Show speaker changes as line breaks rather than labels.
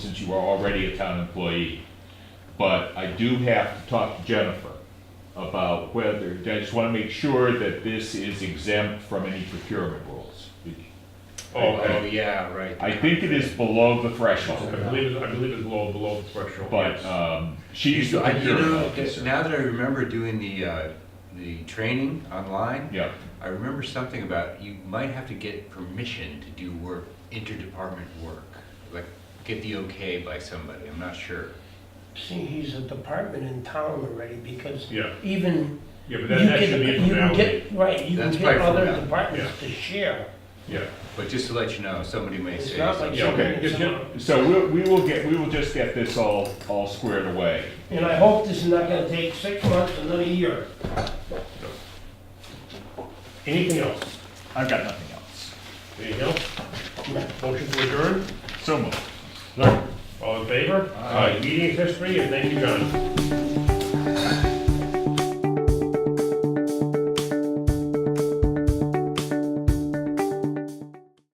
since you are already a town employee. But I do have to talk to Jennifer about whether, I just want to make sure that this is exempt from any procurement rules.
Oh, oh, yeah, right.
I think it is below the
I
threshold,
believe, it- I believe it's below, below the threshold.
but
yes.
um, she's the
I- You
procurement
know, that-
officer.
now that I remember doing the, uh, the training online,
Yeah,
I remember something about you might have to get permission to do work, interdepartment work. Like, get the okay by somebody, I'm not sure.
See, he's a department in town already because
Yeah,
even.
yeah,
you
but that, that
get
should be a
you can
formality.
get Right, you can
That's
get
by
other
formality,
departments to share.
Yeah,
But just to let you know, somebody may
It's
say,
not like
yeah,
something
okay,
that's
yeah,
on-
so we'll- we will get, we will just get this all, all squared away.
And I hope this is not gonna take six months, another year.
anything else?
I've got nothing else.
Anything else? Motion to adjourn?
So moved.
All in favor? Aye. Meeting is history, and thank you, John.